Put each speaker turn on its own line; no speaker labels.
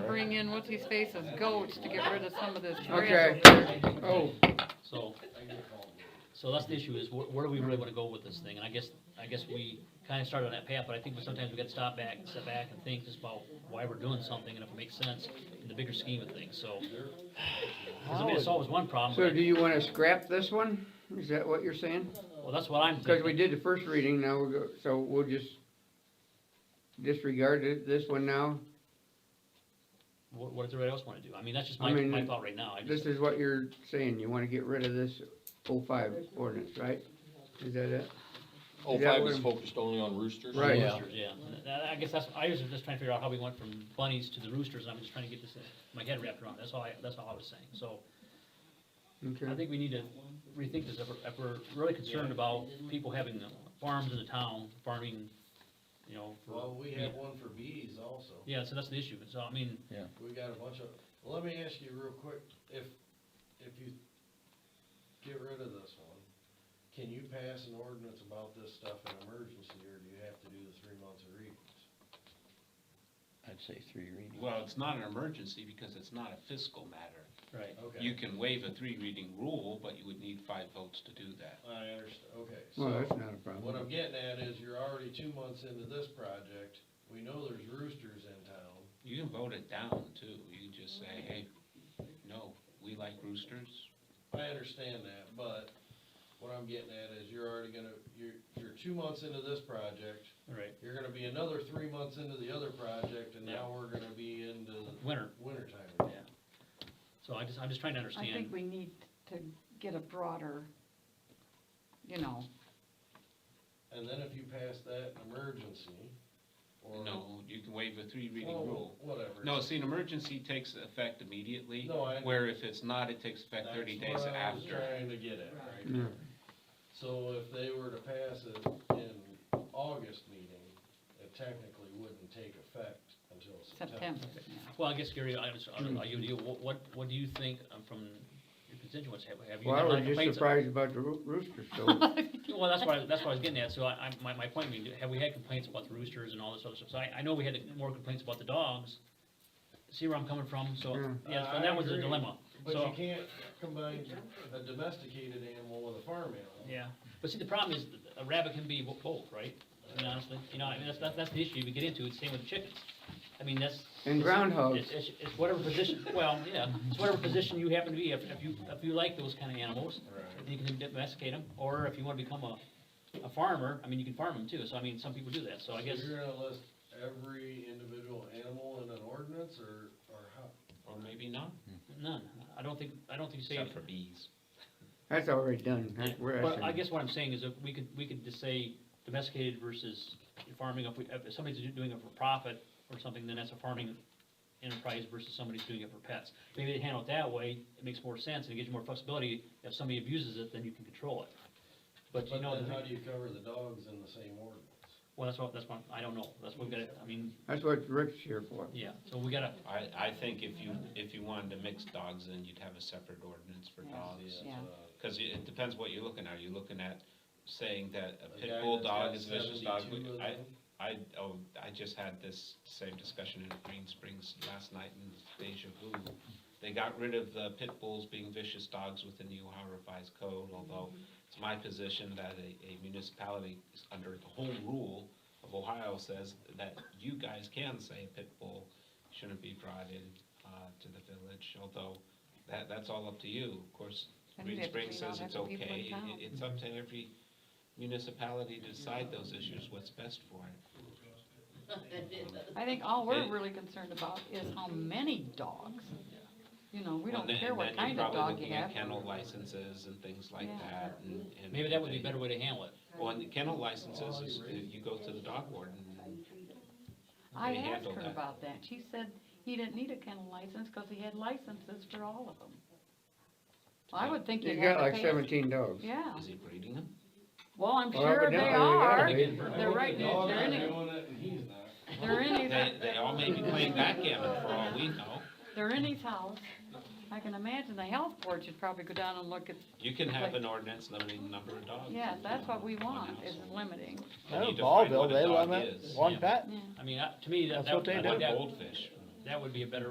bring in, what's his face, as goats to get rid of some of this trash.
Okay. Oh,
So, so that's the issue is where, where do we really wanna go with this thing? And I guess, I guess we kinda started on that path, but I think sometimes we gotta stop back, step back and think just about why we're doing something and if it makes sense in the bigger scheme of things, so. 'Cause I mean, it's always one problem,
so
but-
do you wanna scrap this one? Is that what you're saying?
well, that's what I'm
Cause we
thinking.
did the first reading, now we'll go, so we'll just disregard it- this one now?
What, what does everybody else wanna do? I mean, that's just
I
my,
mean,
my thought right now. I
This
just,
is what you're saying, you wanna get rid of this oh five ordinance, right? Is that it?
Oh,
Yeah,
five
we're-
is focused only on roosters?
Right.
roosters, yeah. And I I guess that's, I was just trying to figure out how we went from bunnies to the roosters, and I'm just trying to get this, my head wrapped around, it. that's all I, that's all I was saying, so. I
Okay,
think we need to rethink this, if we're, if we're really concerned about people having farms in the town, farming, you know,
Well,
for,
we have one for bees also.
yeah, so that's the issue, so I mean,
We got a bunch of, let me ask you real quick, if, if you get rid of this one, can you pass an ordinance about this stuff in emergency, or do you have to do the three months of readings?
I'd say three readings.
Well, it's not an emergency because it's not a fiscal matter.
right,
You
Okay,
can waive a three reading rule, but you would need five votes to do that.
I understand, okay,
well, that's
so,
not a
what I'm
problem.
getting at is you're already two months into this project, we know there's roosters in town.
You can vote it down too. You can just say, hey, no, we like roosters.
I understand that, but what I'm getting at is you're already gonna, you're, you're two months into this project,
right,
you're gonna be another three months into the other project, and now we're gonna be into
winter,
winter time.
yeah. So I just, I'm just trying to
I
understand,
think we need to get a broader, you know,
And then if you pass that in emergency, or. Oh.
No, you can waive a three reading
Well,
rule.
Whatever.
No, see, an emergency takes effect immediately,
No, I.
where if it's not, it takes effect
that's
thirty
what
days
I was
after.
Trying to get at, right?
Mm.
Yeah.
So if they were to pass it in August meeting, it technically wouldn't take effect until September.
September, yeah.
well, I guess Gary, I just, I don't know, you, you, what, what- what do you think um, from your constituents, have, have you?
Well, I
never
was
had
just
complaints?
surprised about the roo- rooster so
Well, that's what, I- that's what I was getting at, so I, I, my, my point being, have we had complaints about the roosters and all this other stuff, so I, I know we had more complaints about the dogs. See where I'm coming from, so,
Yeah.
yes,
I
and that was a
agree.
dilemma,
But
so-
you can't combine a domesticated animal with a farm animal.
Yeah, but see, the problem is, a rabbit can be bo- both, right? I mean, honestly, you know, I mean, that's, that's, that's the issue we get into, it's same with chickens. I mean, that's,
And groundhogs,
it's, it's, it's whatever position, well, yeah, it's whatever position you happen to be, if, if you, if you like those kinda animals,
Right.
you can domesticate them, or if you wanna become a, a farmer, I mean, you can farm them too, so I mean, some people do that, so I guess,
You're gonna list every individual animal in an ordinance, or, or how?
Or maybe not,
none, I don't think, I don't think you say.
except for bees.
that's already done, that's where I
But I
said.
guess what I'm saying is that we could, we could just say domesticated versus farming, if we, if somebody's doing it for profit or something, then that's a farming enterprise versus somebody's doing it for pets. Maybe they handle it that way, it makes more sense, and it gives you more flexibility, if somebody abuses it, then you can control it. But you
But
know,
then
the-
how do you cover the dogs in the same ordinance?
well, that's what, that's what, I don't know, that's what we gotta, I mean,
That's what Rick's here for.
yeah, so we gotta,
I, I think if you, if you wanted to mix dogs in, you'd have a separate ordinance for
Yeah.
dogs.
Yeah.
Uh,
Cause it, it depends what you're looking at, are you looking at saying that
A guy
a pit bull
that's got
dog is a vicious dog?
72 of
I,
them?
I, oh, I just had this same discussion in Green Springs last night in Deja Vu. They got rid of the pit bulls being vicious dogs within the Ohio Revised Code, although
Mm-hmm.
it's my position that a, a municipality is under the home rule of Ohio says that you guys can say a pit bull shouldn't be brought in, uh, to the village, although that, that's all up to you. Of course,
And we
Green
have to
Springs
clean out
says it's
after people in
okay. It-
town.
It's up to every municipality to decide those issues, what's best for it.
I think all we're
It-
really concerned about is how many dogs. You know, we
Well,
don't
then-
care
and
what
then
kind
you're
of dog
probably
you
looking at
have.
Kennel licenses and things like
Yeah.
that, and. and-
maybe that would be a better way to handle it.
Well, and the kennel licenses is, uh, you go to the dog warden, and
I
they
asked
handle
her
that.
about that. She said he didn't need a kennel license because he had licenses for all of them. Well, I would think
You
you'd
got
have to
like
pay.
seventeen dogs.
Yeah.
Is he breeding them?
Well, I'm
Well,
sure they
evidently they gotta
are.
be.
Again,
I
for-
They're
hope
right
the
next-
dog
they're in
is
it.
doing it and he's not.
They're in his,
They, they all may be playing backgammon for all we know.
they're in his house. I can imagine the health board should probably go down and look at,
You can have an ordinance limiting the number of dogs.
yeah,
in
that's what we
one
want,
house.
is limiting.
And you
In Ballville,
define what a
they
dog
limit
is.
one
Yeah.
pet.
Yeah.
I mean, I- to me, that,
That's
that
what
would,
they
I
And
do.
think
One
that,
goldfish.
that would be a better